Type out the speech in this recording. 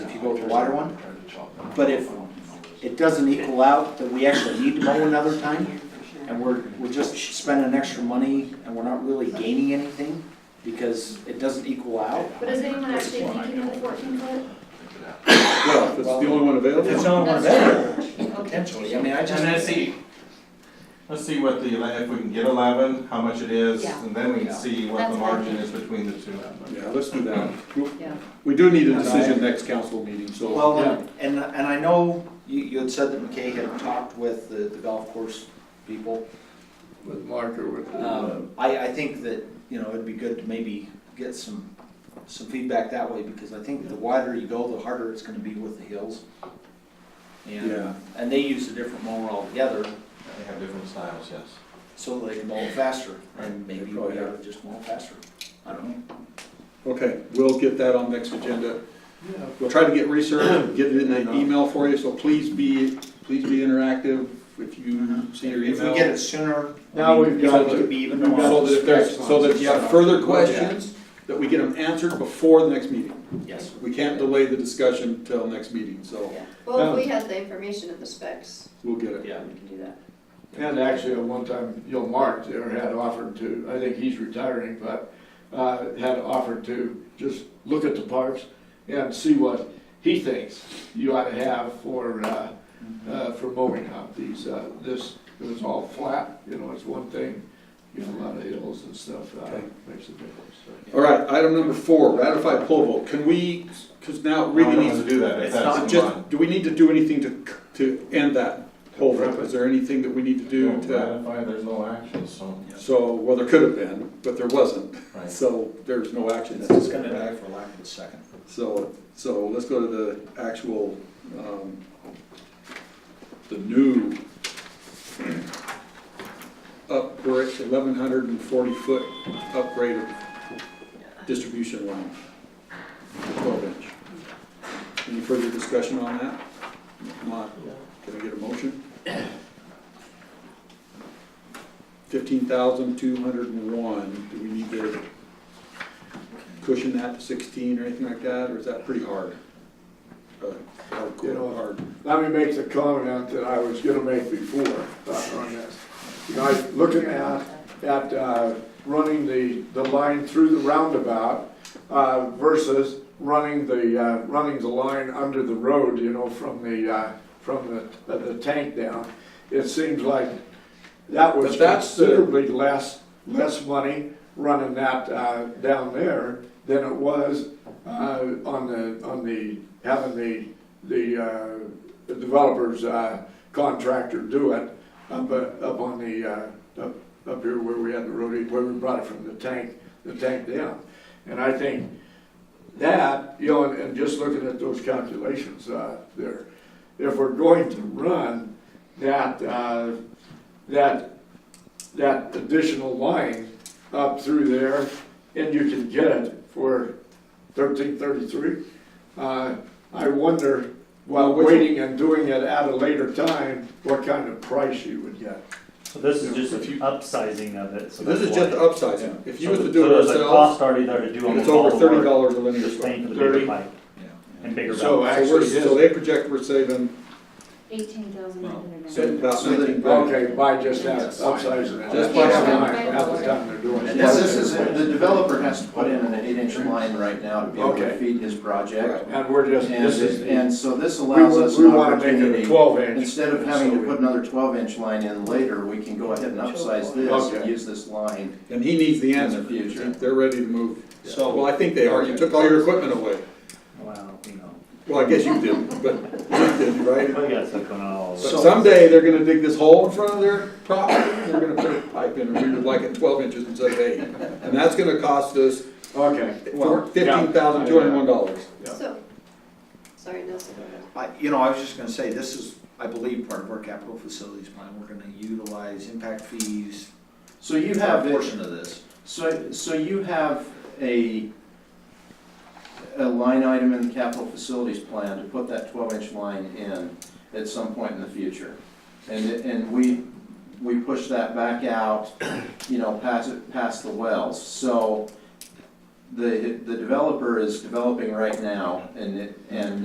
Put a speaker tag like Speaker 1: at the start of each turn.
Speaker 1: go with the water one. But if it doesn't equal out that we actually need to mow another time, and we're, we're just spending extra money and we're not really gaining anything because it doesn't equal out.
Speaker 2: But is anyone actually thinking of the fourteen foot?
Speaker 3: Well, if it's the only one
Speaker 1: If it's
Speaker 3: available.
Speaker 1: only one available,
Speaker 2: Okay.
Speaker 1: potentially, I mean, I
Speaker 4: And
Speaker 1: just,
Speaker 4: let's see, let's see what the, ele- if we can get eleven, how much it is,
Speaker 5: Yeah.
Speaker 4: and then we can see what the
Speaker 5: That's what I
Speaker 4: margin
Speaker 5: think.
Speaker 4: is between the two.
Speaker 3: Yeah, let's do that. We-
Speaker 5: Yeah.
Speaker 3: We do need a decision next council meeting, so.
Speaker 1: well, and, and and I know you, you had said that McKay had talked with the, the golf course people.
Speaker 6: With Mark or with, uh,
Speaker 1: Um, I, I think that, you know, it'd be good to maybe get some, some feedback that way, because I think the wider you go, the harder it's gonna be with the hills.
Speaker 3: Yeah.
Speaker 1: And, and they use a different mower altogether,
Speaker 4: They have different styles, yes.
Speaker 1: so they can mow faster, and maybe
Speaker 3: Oh,
Speaker 1: we
Speaker 3: yeah.
Speaker 1: ought to just mow faster. I don't know.
Speaker 3: Okay, we'll get that on next agenda. We'll try to get research, get it in an email for you, so please be, please be interactive if you see your
Speaker 1: If
Speaker 3: email.
Speaker 1: we get it sooner, I
Speaker 6: Now
Speaker 1: mean,
Speaker 6: we've
Speaker 1: it
Speaker 6: got
Speaker 1: could
Speaker 6: to-
Speaker 1: be even
Speaker 6: we've got
Speaker 3: So
Speaker 1: tomorrow.
Speaker 3: that if there's, so that if you have further questions, that we get them answered before the next meeting.
Speaker 1: Yes.
Speaker 3: We can't delay the discussion till next meeting, so
Speaker 2: Well, if we had the information and the specs,
Speaker 3: we'll get it.
Speaker 1: Yeah.
Speaker 2: we can do that.
Speaker 6: and actually, at one time, you know, Mark there had offered to, I think he's retiring, but, uh, had offered to just look at the parks and see what he thinks you ought to have for, uh, uh, for mowing out these, uh, this, it was all flat, you know, it's one thing, you know, a lot of hills and stuff, uh,
Speaker 3: Okay.
Speaker 6: makes a difference, so.
Speaker 3: All right, item number four, ratify poll vote. Can we, because now it really
Speaker 4: We
Speaker 3: needs
Speaker 4: need to
Speaker 3: to
Speaker 4: do that, if
Speaker 3: It's
Speaker 4: that's
Speaker 3: not
Speaker 4: the one.
Speaker 3: just, do we need to do anything to, to end that whole thing? Is there anything that we need to do
Speaker 4: Don't
Speaker 3: to,
Speaker 4: ratify, there's no action, so.
Speaker 3: so, well, there could have been, but there wasn't.
Speaker 4: Right.
Speaker 3: So there's no action
Speaker 1: It's
Speaker 3: necessary.
Speaker 1: just gonna die for lack of a second.
Speaker 3: So, so let's go to the actual, um, the new upgrade, eleven hundred and forty foot upgrade of distribution line, twelve inch. Any further discussion on that? Come on, can I get a motion? Fifteen thousand two hundred and one, do we need to cushion that to sixteen or anything like that, or is that pretty hard? Uh, hardcore,
Speaker 6: You know,
Speaker 3: hard.
Speaker 6: Let me make the comment that I was gonna make before uh, on this. You know, I was looking at, at uh, running the, the line through the roundabout uh, versus running the, uh, running the line under the road, you know, from the, uh, from the, uh, the tank down. It seems like that was
Speaker 3: But that's the-
Speaker 6: considerably less, less money running that uh, down there than it was uh, on the, on the, having the, the uh, the developer's uh, contractor do it up, uh, up on the, uh, up, up here where we had the road, where we brought it from the tank, the tank down. And I think that, you know, and, and just looking at those calculations uh, there, if we're going to run that, uh, that, that additional line up through there, and you can get it for thirteen thirty-three, uh, I wonder, while
Speaker 3: Well, which-
Speaker 6: waiting and doing it at a later time, what kind of price you would get.
Speaker 7: So this is just upsizing of it, so
Speaker 3: So this
Speaker 7: that's
Speaker 3: is just the
Speaker 7: why.
Speaker 3: upsizing, if you was to
Speaker 7: So
Speaker 3: do it
Speaker 7: there's a
Speaker 3: ourselves,
Speaker 7: cost already there to do almost
Speaker 3: it's
Speaker 7: all
Speaker 3: over
Speaker 7: the
Speaker 3: thirty
Speaker 7: work,
Speaker 3: dollars a linear
Speaker 7: just
Speaker 3: foot.
Speaker 7: paying for the bigger
Speaker 6: Thirty.
Speaker 7: pipe and bigger
Speaker 3: So uh,
Speaker 6: So
Speaker 7: valve.
Speaker 3: we're,
Speaker 6: actually,
Speaker 3: so
Speaker 6: his-
Speaker 3: they project we're saving
Speaker 5: Eighteen thousand nine hundred
Speaker 1: So-
Speaker 5: ninety.
Speaker 3: about
Speaker 1: So they-
Speaker 3: nineteen grand.
Speaker 6: okay, by just that, upsizing it.
Speaker 3: Just by
Speaker 5: having-
Speaker 6: At the time they're doing it.
Speaker 8: And this this is, the developer has to put in an eight-inch line right now to be able
Speaker 6: Okay.
Speaker 8: to feed his project.
Speaker 6: And we're just,
Speaker 8: And,
Speaker 6: this is, we,
Speaker 8: and so this allows us
Speaker 6: we
Speaker 8: an
Speaker 6: wanna make it a
Speaker 8: opportunity,
Speaker 6: twelve inch.
Speaker 8: instead of having
Speaker 6: So
Speaker 8: to
Speaker 6: we-
Speaker 8: put another twelve-inch line in later, we can go ahead and upsize this and
Speaker 6: Okay.
Speaker 8: use this line.
Speaker 3: And he needs the
Speaker 8: In the
Speaker 3: answer,
Speaker 8: future.
Speaker 3: they're ready to move.
Speaker 1: So-
Speaker 3: Well, I think they are, you took all your equipment away.
Speaker 7: Wow, you know,
Speaker 3: Well, I guess you did, but you did, right?
Speaker 7: we got stuff going on all
Speaker 3: But
Speaker 7: over.
Speaker 3: someday, they're gonna dig this hole in front of their property, and they're gonna put a pipe in, and we would like it twelve inches instead of eight. And that's gonna cost us
Speaker 6: Okay.
Speaker 3: fifteen thousand two hundred and one dollars.
Speaker 6: Yeah.
Speaker 2: So, sorry, Nelson, go ahead.
Speaker 1: I, you know, I was just gonna say, this is, I believe, part of our capital facilities plan, we're gonna utilize impact fees
Speaker 8: So you
Speaker 1: for a
Speaker 8: have, it-
Speaker 1: portion of this.
Speaker 8: so, so you have a, a line item in the capital facilities plan to put that twelve-inch line in at some point in the future. And, it- and we, we push that back out, you know, past, it- past the wells. So the, the developer is developing right now and, it- and